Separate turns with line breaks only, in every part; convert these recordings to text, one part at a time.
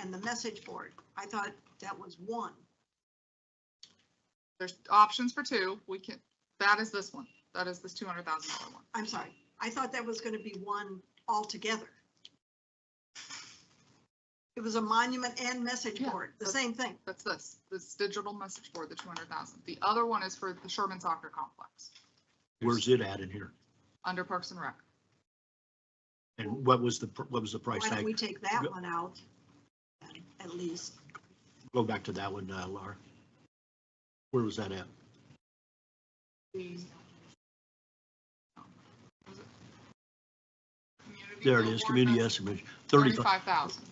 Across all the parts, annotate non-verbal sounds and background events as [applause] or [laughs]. and the message board. I thought that was one.
There's options for two. We can, that is this one. That is this two hundred thousand dollar one.
I'm sorry. I thought that was going to be one altogether. It was a monument and message
Yeah,
board, the
that's-
same thing.
That's this, this digital message board, the two hundred thousand. The other one is for the Sherman Soccer Complex,
Where's it at in here?
under Parks and Rec.
And what was the, pr- what was the price
Why don't
tag?
we take that
Go-
one out? and At least,
Go back to that one, uh, Laura. Where was that at?
The- Was it? Community
There it is,
Award,
community
that's
estimate, thirty-five,
Thirty-five thousand.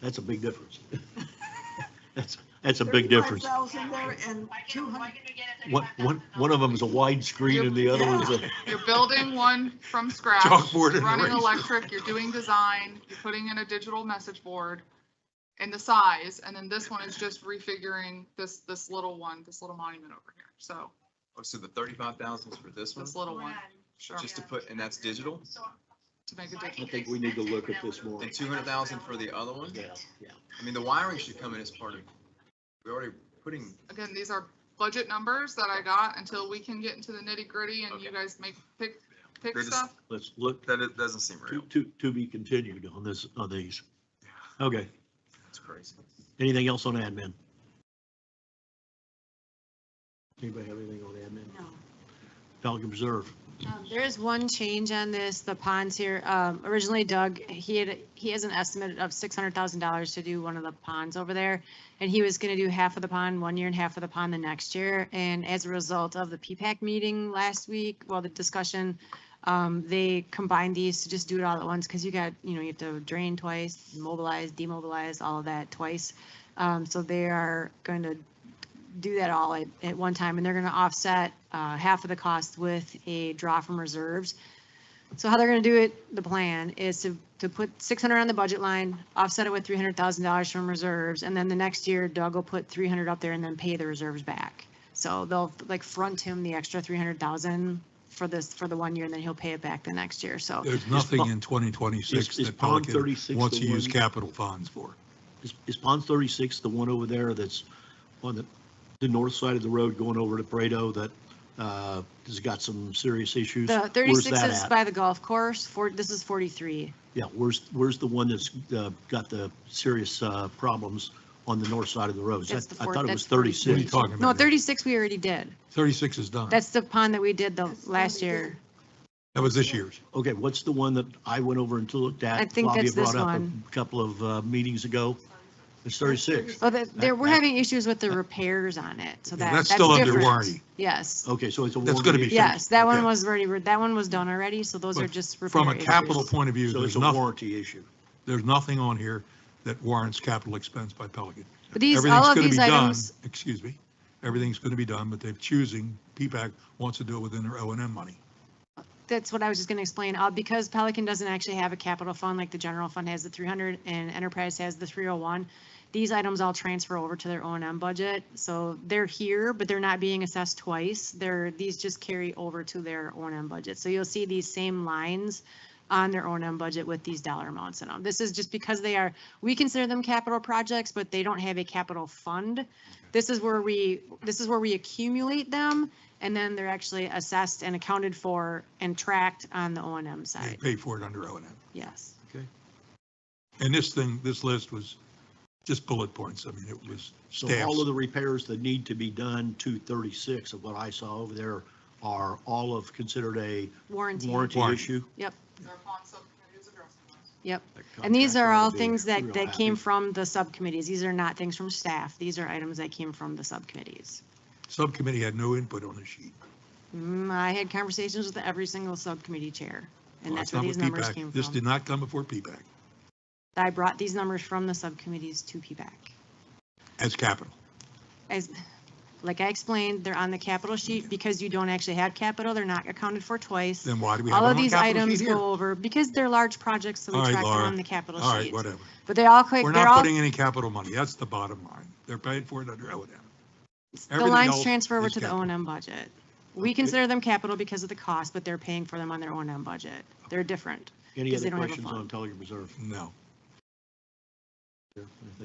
that's a big difference. [laughs] That's, that's a big difference.
35,000 there and
Why can,
200.
why can we get a
One, one,
$35,000
one of them is a widescreen and the other one's a,
You're building one from scratch.
Chalkboard and
Running
eraser.
electric, you're doing design, you're putting in a digital message board and the size, and then this one is just refiguring this, this little one, this little monument over here. So
Oh, so the thirty-five thousand is for this one,
this little one, sure,
just to put, and that's digital?
So-
to make a
so I
difference.
I think we need to look at this more.
And two hundred thousand for the other one?
yeah, yeah.
I mean, the wiring should come in as part of, we're already putting,
Again, these are budget numbers that I got until we can get into the nitty gritty and you
Okay.
guys make, pick, pick
They're just-
stuff.
Let's look,
that it doesn't seem
to,
real.
to, to be continued on this, on these. Okay,
That's crazy.
anything else on admin? Anybody have anything on admin?
No.
Pelican Reserve,
Um, There is one change on this, the ponds here. Um, Originally Doug, he had, he has an estimate of $600,000 to do one of the ponds over there. And he was going to do half of the pond one year and half of the pond the next year. And as a result of the P-PAC meeting last week, well, the discussion, um, they combined these to just do it all at once because you got, you know, you have to drain twice, mobilize, demobilize, all of that twice. Um, So they are going to do that all at, at one time, and they're gonna offset, uh, half of the cost with a draw from reserves. So how they're gonna do it, the plan is to, to put six hundred on the budget line, offset it with three hundred thousand dollars from reserves, and then the next year Doug will put three hundred up there and then pay the reserves back. So they'll like front him the extra three hundred thousand for this, for the one year, and then he'll pay it back the next year, so.
There's nothing
Pond-
in
is-
2026
is
that
Pond
Pelican
36
wants
the
to use
one-
capital funds for.
is, is Pond 36 the one over there that's on the, the north side of the road going over to Prado that, uh, has got some serious issues?
The
Where's
thirty-six
that
is
at?
by the golf course, for, this is forty-three.
Yeah, where's, where's the one that's, uh, got the serious, uh, problems on the north side of the road?
That's the
I
four-
thought it
that's
was
What are you
36.
talking about?
No,
here?
thirty-six we already did.
36 is done.
That's the pond that we did the
That's the one
last
we did.
year.
That was this year's.
Okay, what's the one that I went over and looked at?
I think
Flavia
that's this
brought up a
one.
Couple of, uh, meetings ago. It's 36.
Oh, that, there, we're
that-
having issues with the repairs on it, so
Yeah,
that,
That's
that's
still under
different.
warranty.
Yes,
Oh, Okay, so it's a.
That's gonna be
warranty issue.
yes, that one
Okay.
was already, that one was done already, so those are
But
just
From
repair
a capital
issues.
point of view,
So it's
there's
a
nothing,
warranty issue.
there's nothing on here that warrants capital expense by Pelican.
But these, all of
Everything's going to be
these
done,
items,
excuse me, everything's going to be done, but they're choosing, P-PAC wants to do it within their O and M money.
that's what I was just gonna explain, uh, because Pelican doesn't actually have a capital fund, like the general fund has the three hundred and Enterprise has the three oh one. These items all transfer over to their O and M budget, so they're here, but they're not being assessed twice. They're, these just carry over to their O and M budget, so you'll see these same lines on their O and M budget with these dollar amounts in them. This is just because they are, we consider them capital projects, but they don't have a capital fund. This is where we, this is where we accumulate them and then they're actually assessed and accounted for and tracked on the O and M
They
side,
pay for it under O and M.
yes.
And this thing, this list was just bullet points. I mean, it was
So all of
staffs.
the repairs that need to be done to 36 of what I saw over there are all of considered a
Warranty,
warranty
Warranty.
issue.
They're upon subcommittees addressing this.
yep. And these
That
are
contractor ought
all
to be
things that,
real
that
happy.
came from the subcommittees. These are not things from staff. These are items that came from the subcommittees.
Subcommittee had no input on the sheet.
Mm, I had conversations with every single subcommittee chair, and
Well,
that's
it's
where
not
these
with
numbers
PPAC.
came
This did
from.
not come before P-PAC
I brought these numbers from the subcommittees to PPAC.
as capital.
As, like I explained, they're on the capital sheet because you don't actually have capital. They're not accounted for twice.
Then why do we have
All
it
of
on the
these
capital sheet
items
here?
go over because they're large projects, so
All
we
right,
track them
Laura.
on the capital
All right,
sheet.
whatever.
But they all, click-
We're
they're
not
all,
putting any capital money. That's the bottom line. They're paying for it under O and M.
the
everything
lines
else
transfer over
is
to the O
capital.
and M budget. We consider them capital because of the cost, but they're paying for them on their O and M budget. They're different.
Any
because they
other
don't have a
questions on
fund.
Pelican Reserve?
No.
I think